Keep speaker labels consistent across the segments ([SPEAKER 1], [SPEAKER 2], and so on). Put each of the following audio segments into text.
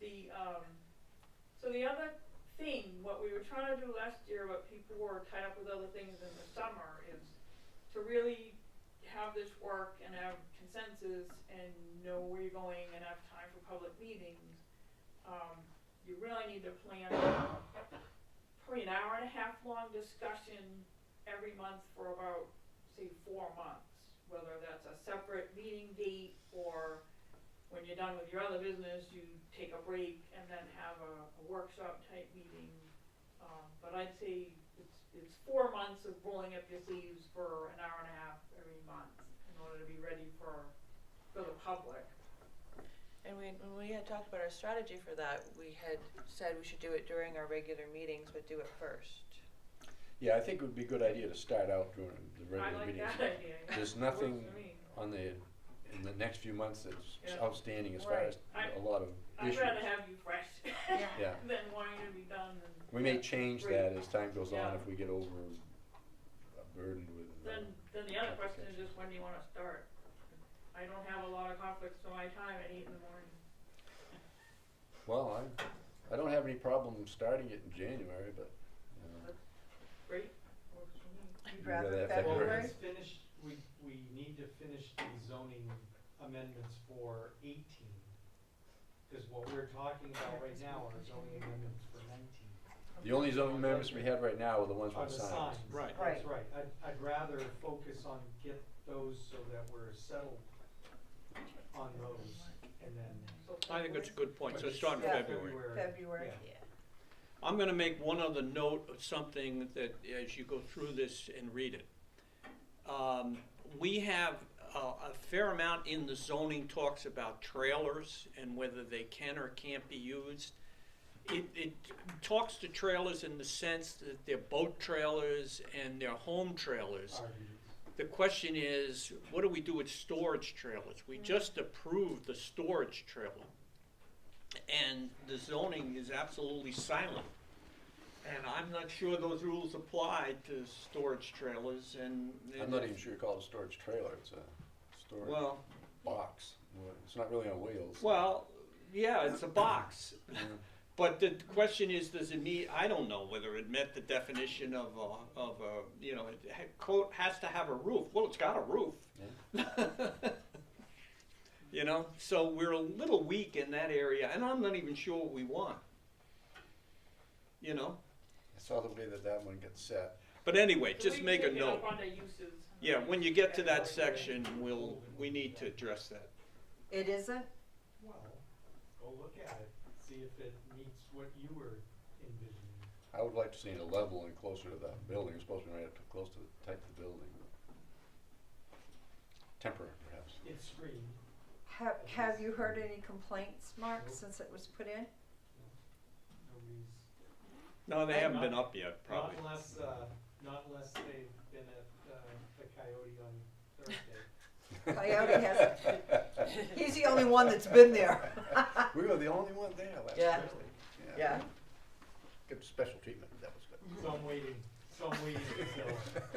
[SPEAKER 1] the, um, so the other thing, what we were trying to do last year, what people were tied up with other things in the summer, is to really have this work and have consensus and know where you're going and have time for public meetings, um, you really need to plan probably an hour and a half long discussion every month for about, say, four months. Whether that's a separate meeting date or when you're done with your other business, you take a break and then have a, a workshop type meeting. Um, but I'd say it's, it's four months of rolling up your sleeves for an hour and a half every month in order to be ready for, for the public.
[SPEAKER 2] And we, when we had talked about our strategy for that, we had said we should do it during our regular meetings, but do it first.
[SPEAKER 3] Yeah, I think it would be a good idea to start out during the
[SPEAKER 1] I like
[SPEAKER 3] regular meetings.
[SPEAKER 1] that idea.
[SPEAKER 3] There's
[SPEAKER 1] Works for
[SPEAKER 3] nothing
[SPEAKER 1] me.
[SPEAKER 3] on the, in the next few months that's
[SPEAKER 1] Yeah.
[SPEAKER 3] outstanding as far
[SPEAKER 2] Right.
[SPEAKER 3] as
[SPEAKER 1] I-
[SPEAKER 3] a lot of
[SPEAKER 1] I'd
[SPEAKER 3] issues.
[SPEAKER 1] rather have you fresh
[SPEAKER 3] Yeah,
[SPEAKER 1] than wanting to be done and.
[SPEAKER 3] we may change that as time goes on
[SPEAKER 1] Yeah.
[SPEAKER 3] if we get over burdened with. uh,
[SPEAKER 1] Then, then the other question is just when do you wanna start? I don't have a lot of conflicts for my time at eight in the morning.
[SPEAKER 3] Well, I, I don't have any problem starting it in January, but, uh, you know,
[SPEAKER 1] Great, works for me.
[SPEAKER 3] You'd rather rather have that
[SPEAKER 4] Well,
[SPEAKER 3] February?
[SPEAKER 4] let's finish, we, we need to finish the zoning amendments for eighteen. Cause what we're talking about right now are zoning amendments for nineteen.
[SPEAKER 3] the only zoning amendments we have right now are the ones
[SPEAKER 4] Are
[SPEAKER 3] with
[SPEAKER 4] the
[SPEAKER 3] signs.
[SPEAKER 4] signs.
[SPEAKER 5] Right.
[SPEAKER 4] That's right. I'd, I'd rather focus on get those so that we're settled on those and then.
[SPEAKER 1] So
[SPEAKER 5] I think that's a good point, so
[SPEAKER 4] but
[SPEAKER 5] start in
[SPEAKER 2] Yeah.
[SPEAKER 5] February.
[SPEAKER 2] February.
[SPEAKER 4] Yeah.
[SPEAKER 5] I'm gonna make one other note of something that, as you go through this and read it. Um, we have a, a fair amount in the zoning talks about trailers and whether they can or can't be used. It, it talks to trailers in the sense that they're boat trailers and they're home trailers. The question is, what do we do with storage trailers? We just approved the storage trailer. And the zoning is absolutely silent. And I'm not sure those rules apply to storage trailers and.
[SPEAKER 3] I'm not even sure you call it a storage trailer, it's a storage
[SPEAKER 5] Well,
[SPEAKER 3] box, Well, it's not really on wheels.
[SPEAKER 5] well, yeah, it's a box.
[SPEAKER 3] Yeah.
[SPEAKER 5] But the question is, does it meet, I don't know whether it met the definition of a, of a, you know, it ha- quote, has to have a roof. Well, it's got a roof. You know, so we're a little weak in that area, and I'm not even sure what we want. You know,
[SPEAKER 3] I saw the way that that one gets set.
[SPEAKER 5] but anyway,
[SPEAKER 1] So we
[SPEAKER 5] just
[SPEAKER 1] can
[SPEAKER 5] make a
[SPEAKER 1] pick it up
[SPEAKER 5] note.
[SPEAKER 1] on the uses.
[SPEAKER 5] Yeah, when you get to that
[SPEAKER 1] Category.
[SPEAKER 5] section, we'll, we need to address that.
[SPEAKER 6] It isn't?
[SPEAKER 4] Well, go look at it, see if it meets what you were envisioning.
[SPEAKER 3] I would like to see it a level and closer to the building, it's supposed to be right up to, close to the type of the building. Temporary, perhaps.
[SPEAKER 4] It's screened.
[SPEAKER 6] Have, have you heard any complaints, Mark, since it was put in?
[SPEAKER 4] Nobody's,
[SPEAKER 5] No, they
[SPEAKER 4] I'm
[SPEAKER 5] haven't
[SPEAKER 4] not-
[SPEAKER 5] been up yet,
[SPEAKER 4] not
[SPEAKER 5] probably.
[SPEAKER 4] unless, uh, not unless they've been at, uh, the Coyote on Thursday.
[SPEAKER 6] Coyote has, he's the only one that's been there.
[SPEAKER 3] We were the only one there last
[SPEAKER 6] Yeah.
[SPEAKER 3] Thursday.
[SPEAKER 6] Yeah,
[SPEAKER 3] Good special treatment, that was good.
[SPEAKER 4] So I'm waiting, so I'm waiting until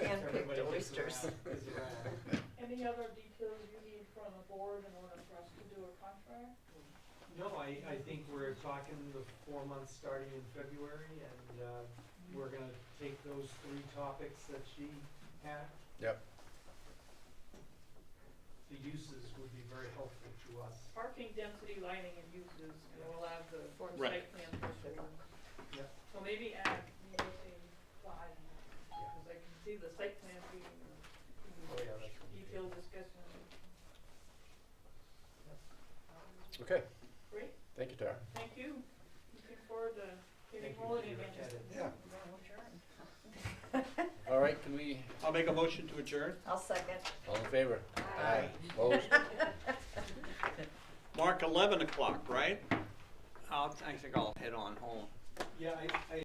[SPEAKER 6] Hand-picked
[SPEAKER 4] everybody gets
[SPEAKER 6] oysters.
[SPEAKER 4] around, is around.
[SPEAKER 1] Any other details you need from the board in order for us to do a contract?
[SPEAKER 4] No, I, I think we're talking the four months starting in February, and, uh, we're gonna take those three topics that she had.
[SPEAKER 3] Yep.
[SPEAKER 4] The uses would be very helpful to us.
[SPEAKER 1] Parking density, lighting and uses, and we'll have the board
[SPEAKER 5] Right.
[SPEAKER 1] site plan for sure.
[SPEAKER 4] Yeah.
[SPEAKER 1] So maybe add, maybe say five, cause I can see the site plan being
[SPEAKER 4] Oh,
[SPEAKER 1] a
[SPEAKER 4] yeah, that's. gonna be
[SPEAKER 1] detailed discussion.
[SPEAKER 3] Okay,
[SPEAKER 1] Great,
[SPEAKER 3] thank you, Tara.
[SPEAKER 1] thank you. Looking forward to getting
[SPEAKER 4] Thank you.
[SPEAKER 1] rolling
[SPEAKER 4] You
[SPEAKER 1] again.
[SPEAKER 4] look at it.
[SPEAKER 3] Yeah. All right, can we,
[SPEAKER 5] I'll make a motion to adjourn.
[SPEAKER 6] I'll second.
[SPEAKER 3] all in favor?
[SPEAKER 4] Aye.
[SPEAKER 3] Opposed?
[SPEAKER 5] Mark, eleven o'clock, right? I'll, I think I'll head on home.
[SPEAKER 4] Yeah, I, I